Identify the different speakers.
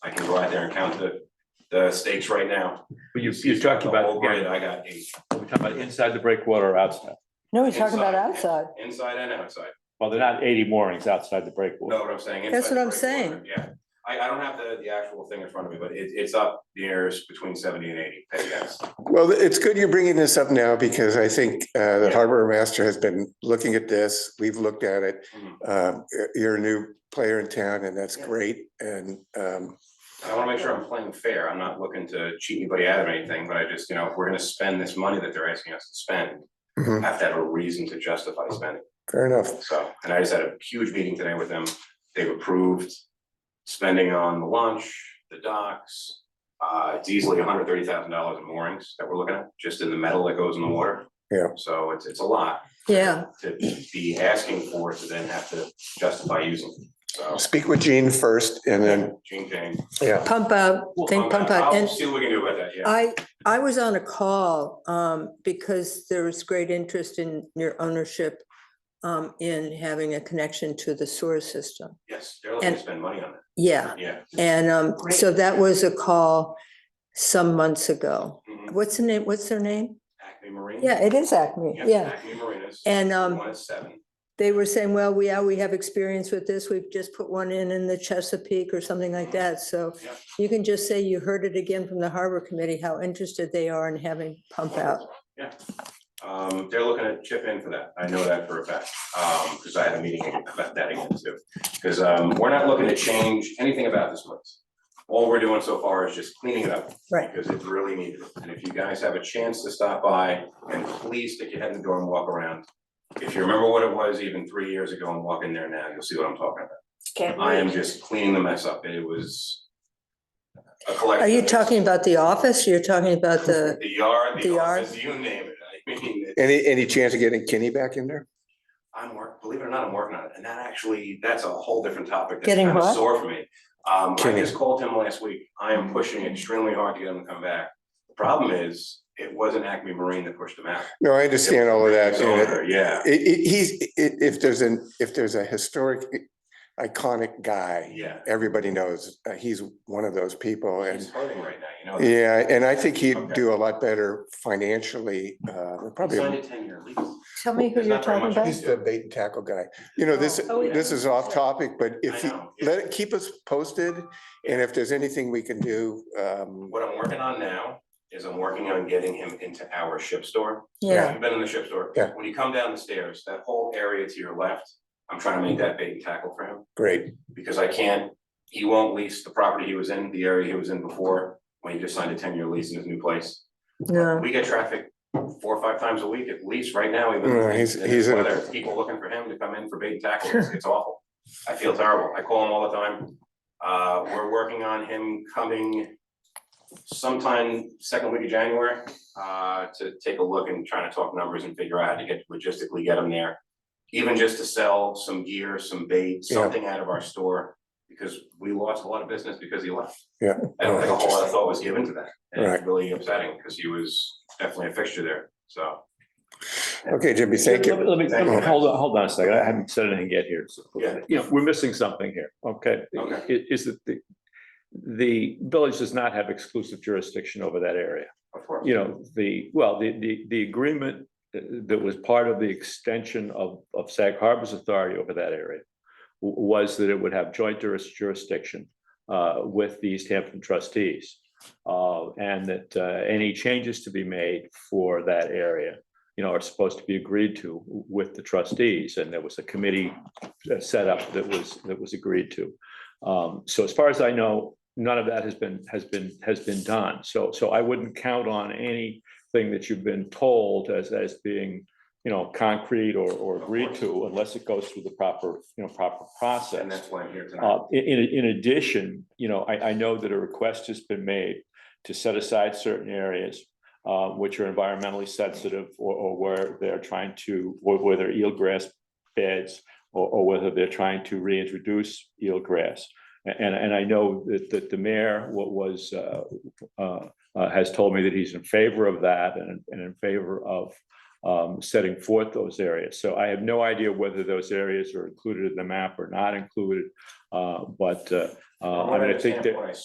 Speaker 1: go out there and count the, the stakes right now.
Speaker 2: But you, you're talking
Speaker 1: The
Speaker 2: about,
Speaker 1: whole grid,
Speaker 2: again,
Speaker 1: I got eight,
Speaker 2: we're talking about inside the breakwater or outside.
Speaker 3: No, we're talking about
Speaker 1: Inside.
Speaker 3: outside.
Speaker 1: inside and outside.
Speaker 2: Well, they're not eighty moorings outside the
Speaker 1: Know
Speaker 2: breakwater.
Speaker 1: what I'm saying?
Speaker 3: That's
Speaker 1: Inside
Speaker 3: what I'm
Speaker 1: the
Speaker 3: saying.
Speaker 1: breakwater, Yeah, I, I don't have the, the actual thing in front of me, but it, it's up near s- between seventy and eighty, I guess.
Speaker 4: Well, it's good you're bringing this up now because I think uh, the harbor master has been looking at this. We've looked at it.
Speaker 1: Mhm.
Speaker 4: Um, y- You're a new player in town and that's
Speaker 1: Yeah.
Speaker 4: great. And um,
Speaker 1: I wanna make sure I'm playing fair, I'm not looking to cheat anybody out of anything, but I just, you know, if we're gonna spend this money that they're asking us to spend, I
Speaker 4: mhm,
Speaker 1: have to have a reason to justify spending.
Speaker 4: fair enough.
Speaker 1: So, and I just had a huge meeting today with them. They've approved spending on the launch, the docks. Uh, it's easily hundred thirty thousand dollars in moorings that we're looking at, just in the metal that goes in the water.
Speaker 4: Yeah.
Speaker 1: So it's, it's a lot
Speaker 3: Yeah,
Speaker 1: to be asking for to then have to justify using, so.
Speaker 4: Speak with Gene first and then,
Speaker 1: Gene Kane.
Speaker 4: yeah,
Speaker 3: pump out,
Speaker 1: Um,
Speaker 3: think pump out.
Speaker 1: I'll
Speaker 3: And
Speaker 1: see what we can do about that, yeah.
Speaker 3: I, I was on a call um, because there was great interest in your ownership um, in having a connection to the sewer system.
Speaker 1: Yes, they're looking to
Speaker 3: and-
Speaker 1: spend money on it,
Speaker 3: Yeah,
Speaker 1: yeah.
Speaker 3: and um, so that was a call some months ago.
Speaker 1: Mhm.
Speaker 3: What's the name, what's their name?
Speaker 1: Acme Marine.
Speaker 3: Yeah, it is Acme,
Speaker 1: Yep,
Speaker 3: yeah.
Speaker 1: Acme Marinas.
Speaker 3: And um,
Speaker 1: One is seven.
Speaker 3: they were saying, well, we, yeah, we have experience with this. We've just put one in in the Chesapeake or something like that. So
Speaker 1: Yep.
Speaker 3: you can just say you heard it again from the Harbor Committee, how interested they are in having pump out.
Speaker 1: Yeah, um, they're looking to chip in for that, I know that for a fact, um, because I had a meeting about that again too. Because, um, we're not looking to change anything about this place. All we're doing so far is just cleaning it up.
Speaker 3: Right.
Speaker 1: Because it's really needed, and if you guys have a chance to stop by, and please stick your head in the door and walk around. If you remember what it was even three years ago and walk in there now, you'll see what I'm talking
Speaker 5: Can't
Speaker 1: about. I am
Speaker 5: wait.
Speaker 1: just cleaning the mess up, it was a collection.
Speaker 3: Are you
Speaker 1: of-
Speaker 3: talking about the office? You're talking about the,
Speaker 1: The yard, the
Speaker 3: the yard?
Speaker 1: office, you name it, I mean, it-
Speaker 4: any, any chance of getting Kenny back in there?
Speaker 1: I'm work, believe it or not, I'm working on it, and that actually, that's a whole different topic. that's
Speaker 3: Getting
Speaker 1: kind of
Speaker 3: what?
Speaker 1: Sore for me. Um, I
Speaker 4: Kidding.
Speaker 1: just called him last week. I am pushing extremely hard to get him to come back. The Problem is, it wasn't Acme Marine that pushed him out.
Speaker 4: No, I understand all of that.
Speaker 1: His
Speaker 4: and it-
Speaker 1: owner, Yeah,
Speaker 4: It, it, he's, i- if there's an, if there's a historic iconic guy,
Speaker 1: yeah.
Speaker 4: everybody knows uh, he's one of those people and
Speaker 1: He's hurting right now, you know. that.
Speaker 4: Yeah, and I think he'd
Speaker 1: Okay.
Speaker 4: do a lot better financially, uh,
Speaker 1: He signed a
Speaker 4: probably.
Speaker 1: ten year lease.
Speaker 3: tell me who
Speaker 1: There's
Speaker 3: you're
Speaker 1: not very
Speaker 3: talking
Speaker 1: much
Speaker 3: about?
Speaker 4: He's the bait and tackle guy. You know, this,
Speaker 3: Oh, yeah.
Speaker 4: this is off topic, but if
Speaker 1: I
Speaker 4: you,
Speaker 1: know.
Speaker 4: let it, keep us posted. And if there's anything we can do, um,
Speaker 1: What I'm working on now is I'm working on getting him into our ship store.
Speaker 3: Yeah,
Speaker 1: You've been in the ship store.
Speaker 4: Yeah.
Speaker 1: When you come down the stairs, that whole area to your left, I'm trying to make that bait and tackle for him.
Speaker 4: great.
Speaker 1: because I can't, he won't lease the property he was in, the area he was in before, when he just signed a ten-year lease in his new place.
Speaker 3: no,
Speaker 1: We get traffic four or five times a week at least right now, even.
Speaker 4: Yeah, he's-
Speaker 1: and
Speaker 4: he's in a-
Speaker 1: whether People looking for him to come in for bait and tackle, it's- it's awful. I feel terrible. I call him all the time. Uh, we're working on him coming sometime second week of January, uh, to take a look and trying to talk numbers and figure out how to get logistically get him there. Even just to sell some gear, some bait,
Speaker 4: Yeah.
Speaker 1: something out of our store, because we lost a lot of business because he left.
Speaker 4: Yeah.
Speaker 1: I don't think a whole lot of thought was given to that. And it's
Speaker 4: Right.
Speaker 1: really upsetting because he was definitely a fixture there, so.
Speaker 4: Okay, Jimmy, thank
Speaker 2: Let me-
Speaker 4: you.
Speaker 2: Let me, let me-
Speaker 1: Thank you.
Speaker 2: hold on, hold on a second. I haven't said anything yet here. So,
Speaker 1: Yeah.
Speaker 2: you know, we're missing something here, okay?
Speaker 1: Okay.
Speaker 2: I- Is that the, the village does not have exclusive jurisdiction over that area.
Speaker 1: Of course.
Speaker 2: You know, the, well, the, the, the agreement uh, that was part of the extension of, of Sag Harbor's authority over that area w- was that it would have joint juris- jurisdiction uh, with the East Hampton trustees. uh, And that uh, any changes to be made for that area, you know, are supposed to be agreed to with the trustees. And there was a committee uh, set up that was, that was agreed to. Um, So as far as I know, none of that has been, has been, has been done. So, so I wouldn't count on anything that you've been told as, as being, you know, concrete or, or agreed to unless it goes through the proper, you know, proper process.
Speaker 1: And that's why I'm here tonight.
Speaker 2: Uh, i- in, in addition, you know, I, I know that a request has been made to set aside certain areas uh, which are environmentally sensitive or, or where they're trying to, where where they're eelgrass beds or, or whether they're trying to reintroduce eelgrass. A- And, and I know that, that the mayor wa- was, uh, uh, uh, has told me that he's in favor of that and, and in favor of um, setting forth those areas. So I have no idea whether those areas are included in the map or not included. Uh, but, uh, uh,
Speaker 1: From
Speaker 2: I
Speaker 1: what
Speaker 2: mean, I think
Speaker 1: understand,
Speaker 2: that.
Speaker 1: when I